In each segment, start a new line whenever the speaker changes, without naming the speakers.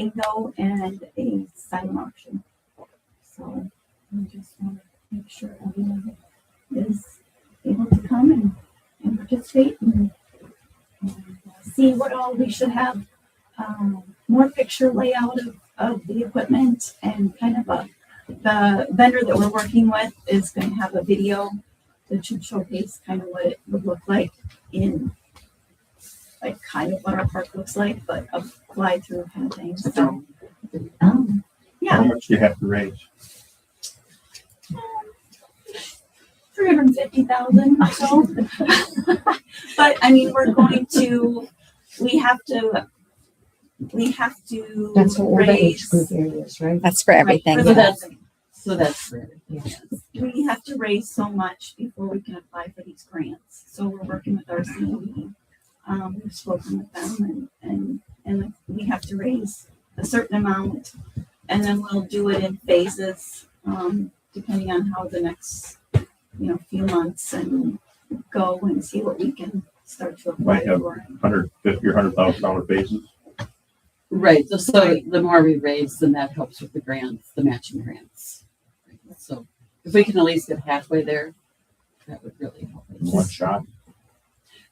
bingo and a sign auction. So we just want to make sure everyone is able to come and, and participate and and see what all we should have, um, more picture layout of, of the equipment and kind of a, the vendor that we're working with is going to have a video that should showcase kind of what it would look like in like kind of what our park looks like, but a fly through kind of thing. So, um,
How
yeah,
much do you have to raise?
three hundred fifty thousand or so. but I mean, we're going to, we have to, we have to
That's what all the age
raise.
group areas, right?
That's for everything.
Right,
yeah.
for the-
So that's for everything.
we have to raise so much before we can apply for these grants. So we're working with our COE. Um, we've spoken with them and, and, and we have to raise a certain amount. And then we'll do it in phases, um, depending on how the next, you know, few months and go and see what we can start to apply
Right, yeah.
for.
Hundred fifty or hundred thousand dollar basis?
Right, so, so the more we raise, then that helps with the grants, the matching grants. So if we can at least get halfway there, that would really help
in One
us.
shot,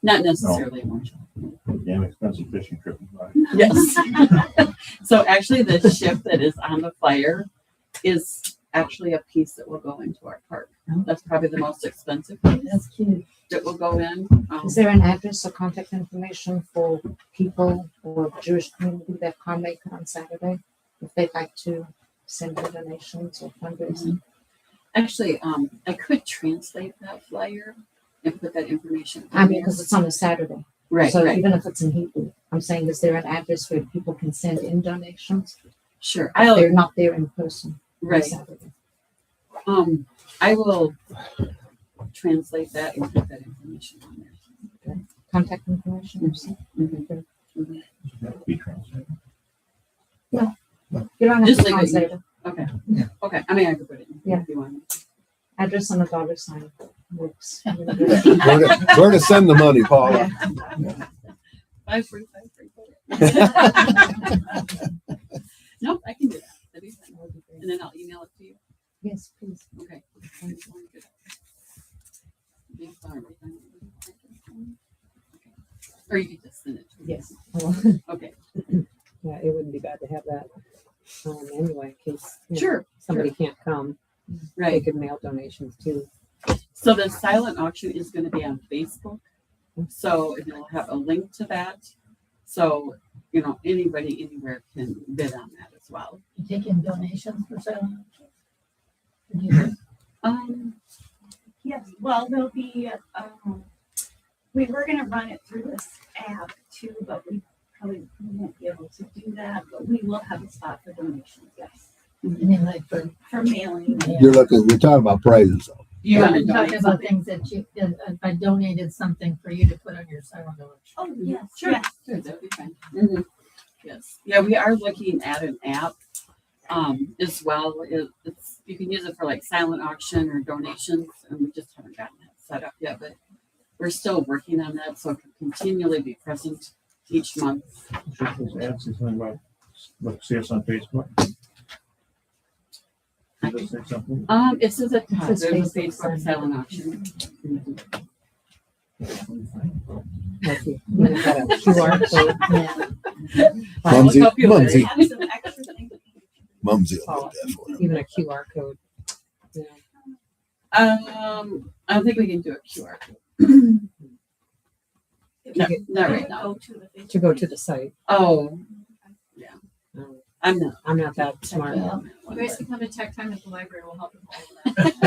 Not necessarily one shot.
damn expensive fishing trip. is like-
Yes. So actually, the ship that is on the flyer is actually a piece that will go into our park. That's probably the most expensive piece
Oh. That's cute.
that will go in. Um,
Is there an address or contact information for people or Jewish community that can't make it on Saturday? If they'd like to send their donations or fundraising?
Actually, um, I could translate that flyer and put that information. in
I mean,
there.
because it's on a Saturday.
Right,
So
right,
even if it's in Hebrew, I'm saying, is there an address where people can send in donations?
sure.
If
I'll,
They're not there in person on
right.
Saturday.
Um, I will translate that and put that information on there.
Contact information or something?
Be translated.
You don't have
Just
to
like what you-
translate it.
Okay,
Yeah.
okay, I mean, I could put it in.
Yeah.
If you want.
Address on a dollar sign works.
Where to, where to send the money, Paula?
Five free, five free. Nope, I can do that. That'd be fine. And then I'll email it to you.
Yes, please.
Okay. Or you could just send it to me.
Yes.
Okay,
Yeah, it wouldn't be bad to have that um, anyway, in case you know,
sure,
somebody can't come. They
right.
could mail donations too.
So the silent auction is gonna be on Facebook. So it will have a link to that. So, you know, anybody anywhere can bid on that as well.
You take in donations for selling? Or do you just
Um,
Yes, well, there'll be, um, we were gonna run it through this app too, but we probably won't be able to do that, but we will have a spot for donations, yes.
mean like for?
For mailing,
You're looking, we're talking about prizes. though.
you wanna
I'm talking
donate
about
something?
things that you, that if I donated something for you to put on your silent auction.
oh, yes,
Sure.
yes,
Sure, that'd be fine.
Mm-hmm.
Yes, yeah, we are looking at an app, um, as well. It- It's, you can use it for like silent auction or donations, and we just haven't gotten that set up yet, but we're still working on that, so it can continually be present each month.
Should those ads say something about, look, see us on Facebook? Should they say something?
Um, it says at the top,
It
there's
says
a
Facebook Mm-hmm. silent
Facebook silent auction. Mhm.
Like you- you got a QR code.
I'll
Mumsy,
help you with it.
Mumsy,
have some extra things.
Mumsy will get that for you.
Even a QR code. Yeah.
Um, I don't think we can do a QR. code. No, not right now.
Go to the.
To go to the site.
Oh,
Um,
I'm not.
I'm not that smart.
Yeah.
You guys
can come to tech time at the library, we'll help you with all of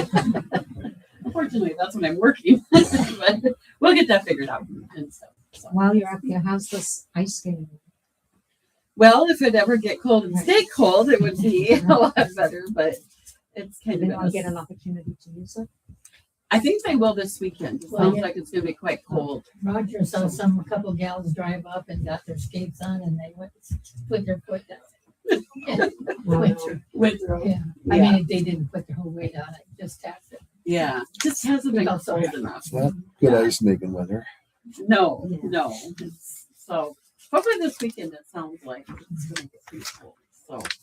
that.
Unfortunately, that's when I'm working, but we'll get that figured out and stuff. so.
While you're up here, how's this ice skating?
Well, if it ever get cold and stay cold, it would be a lot better, but it's
Did
kind of.
anyone get
a-
an opportunity to use it?
I think they will this weekend. It
Well,
Sounds
yeah.
like it's gonna be quite cold.
Roger saw some, a couple gals drive up and got their skates on and they went, put their foot down. Winter,
Winter.
yeah. I mean, they didn't put their whole weight on it, just tapped it.
Yeah, just hasn't been
Because-
cold enough.
Well, Good ice making weather.
No,
Yeah.
no. It's- So Hopefully this weekend, it sounds like it's gonna be pretty cool, so.